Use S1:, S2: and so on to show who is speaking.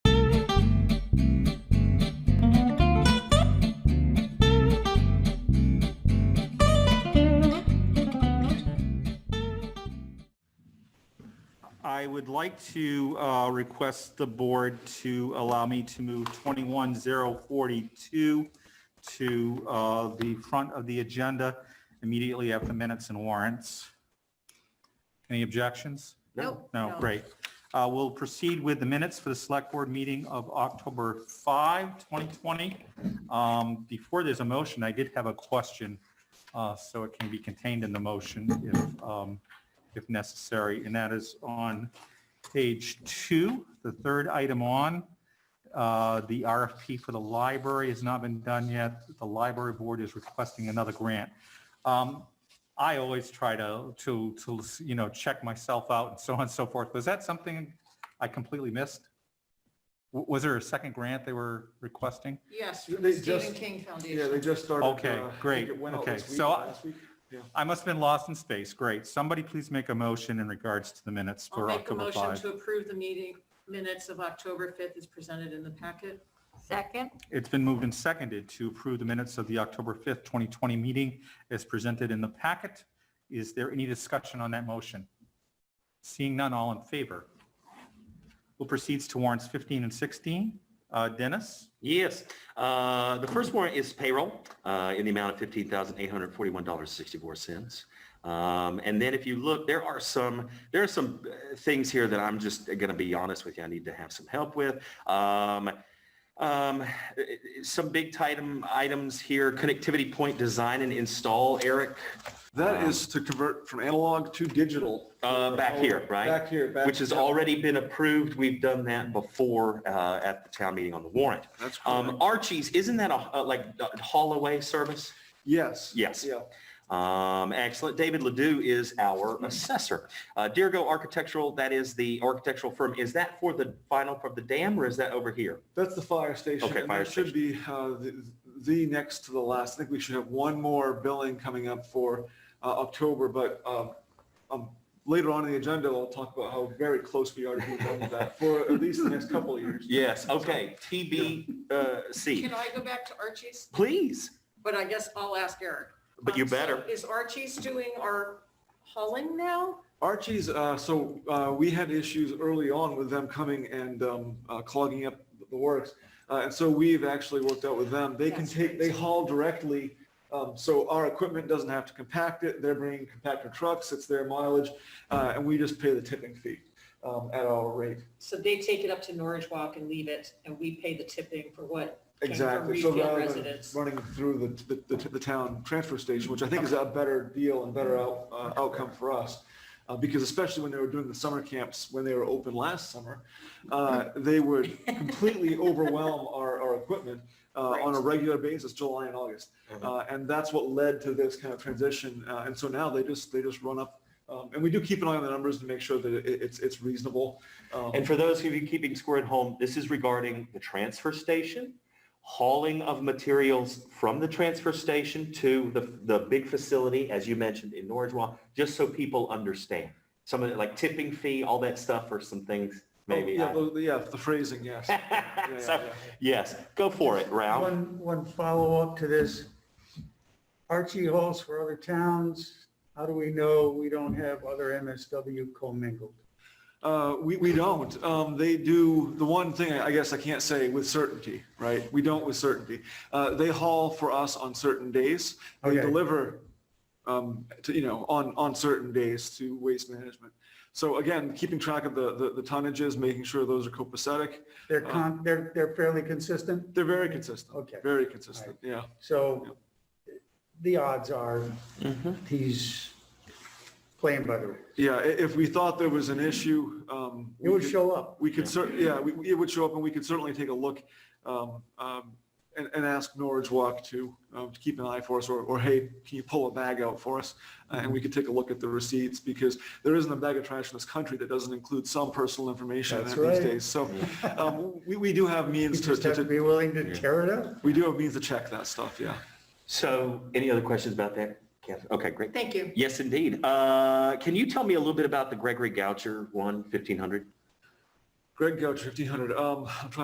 S1: I would like to uh, request the board to allow me to move 21042 to uh, the front of the agenda immediately after minutes and warrants. Any objections?
S2: Nope.
S1: No, great. Uh, We'll proceed with the minutes for the Select Board meeting of October 5, 2020. Um, Before there's a motion, I did have a question, uh, so it can be contained in the motion if, um, if necessary, and that is on page two, the third item on. uh, The RFP for the library has not been done yet. The library board is requesting another grant. Um, I always try to, to, to, you know, check myself out and so on and so forth. Was that something I completely missed? W- Was there a second grant they were requesting?
S2: Yes, from
S3: They
S2: the Stephen
S3: just-
S2: King
S3: Yeah, they
S2: Foundation.
S3: just started.
S1: Okay,
S3: uh, I think
S1: great,
S3: it went out
S1: okay,
S3: this week,
S1: so I-
S3: last week.
S1: I must have been lost in space. Great. Somebody please make a motion in regards to the minutes
S2: I'll
S1: for
S2: make a
S1: October
S2: motion
S1: 5.
S2: to approve the meeting minutes of October 5th as presented in the packet.
S4: Second,
S1: It's been moved and seconded to approve the minutes of the October 5th, 2020 meeting as presented in the packet. Is there any discussion on that motion? Seeing none, all in favor? We'll proceed to warrants 15 and 16. Uh, Dennis?
S5: Yes, uh, the first warrant is payroll uh, in the amount of fifteen thousand eight hundred forty-one dollars sixty-four cents. Um, and then if you look, there are some there are some uh, things here that I'm just going to be honest with you. I need to have some help with. Um, um, some big item items here: connectivity point design and install. Eric,
S1: Um,
S3: That is to convert from analog to digital.
S5: Uh, back here, right?
S3: Back here, back.
S5: which has
S3: yeah,
S5: already been approved. We've done that before uh, at the town meeting on the warrant.
S3: That's
S5: Um,
S3: correct.
S5: Archie's, isn't that a, a like a haul-away service?
S3: Yes.
S5: Yes.
S3: Yeah.
S5: Um, excellent. David Ledoux is
S3: Mm-hmm.
S5: our assessor. Uh, Deergo Architectural, that is the architectural firm. Is that for the final for the dam or is that over here?
S3: That's the fire station.
S5: Okay,
S3: and
S5: fire
S3: that Should be uh, the the next to the last. I think we should have one more billing coming up for uh, October, but um, um, later on in the agenda, I'll talk about how very close we are to being done with that for at least the next couple of years.
S5: Yes. Okay. TBC.
S2: Can I go back to Archie's?
S5: Please.
S2: But I guess I'll ask Eric.
S5: But you
S2: Um, so
S5: better.
S2: Is Archie's doing our hauling now?
S3: Archie's, uh, so, uh, we had issues early on with them coming and, um, uh, clogging up the works. Uh, and so we've actually worked out with them. They can
S2: That's
S3: take,
S2: great.
S3: they haul directly. Um, so our equipment doesn't have to compact it. They're bringing compactor trucks. It's their mileage. Uh, and we just pay the tipping fee, um, at our rate.
S2: So they take it up to Norwich Walk and leave it, and we pay the tipping for what? came from
S3: Exactly. So
S2: Reedfield
S3: rather than
S2: residents.
S3: running through the, the, the, the town transfer station, which I think is a better deal and better out, uh, outcome for us. Uh, because especially when they were doing the summer camps, when they were open last summer, uh,
S5: Mm-hmm.
S3: they would completely overwhelm our, our equipment, uh, on a regular basis, July and August.
S5: Mm-hmm.
S3: Uh, and that's what led to this kind of transition. Uh, and so now they just, they just run up. Um, and we do keep an eye on the numbers to make sure that it, it's, it's reasonable. Um,
S5: And for those of you keeping score at home, this is regarding the transfer station, hauling of materials from the transfer station to the, the big facility, as you mentioned in Norridgewell, just so people understand. Some of it, like tipping fee, all that stuff are some things maybe.
S3: Oh, Yeah,
S5: I-
S3: the- yeah, the phrasing, yes. yeah,
S5: So,
S3: yeah.
S5: yes, go for it, Ralph.
S6: One, one follow-up to this. Archie hauls for other towns. How do we know we don't have other MSW commingled?
S3: Uh, we, we don't. Um, they do, the one thing I I guess I can't say with certainty, right? We don't with certainty. Uh, they haul for us on certain days. They
S6: Okay.
S3: deliver, um, to, you know, on, on certain days to waste management. So again, keeping track of the, the, the tonnages, making sure those are copacetic.
S6: They're con, they're, they're fairly consistent,
S3: They're very consistent.
S6: Okay.
S3: Very consistent, yeah.
S6: so the odds are he's playing by the rules.
S3: Yeah, i- if we thought there was an issue, um.
S6: It
S3: we
S6: would
S3: could-
S6: show up.
S3: We could cer, yeah, we, we- it would show up and we could certainly take a look, um, um, and, and ask Norwich Walk to, um, to keep an eye for us or, or hey, can you pull a bag out for us? Uh, And
S6: Mm-hmm.
S3: we could take a look at the receipts because there isn't a bag of trash in this country that doesn't include some personal information in
S6: That's
S3: it these
S6: right.
S3: days. So, um, we, we do have means
S6: You
S3: to,
S6: just have to
S3: to,
S6: be willing to tear it up.
S3: we do have means to check that stuff, yeah.
S5: So any other questions about that? Catherine? Okay, great.
S2: Thank you.
S5: Yes, indeed. Uh, Can you tell me a little bit about the Gregory Goucher one, 1500?
S3: Greg Gouch, 1500, um, I'm trying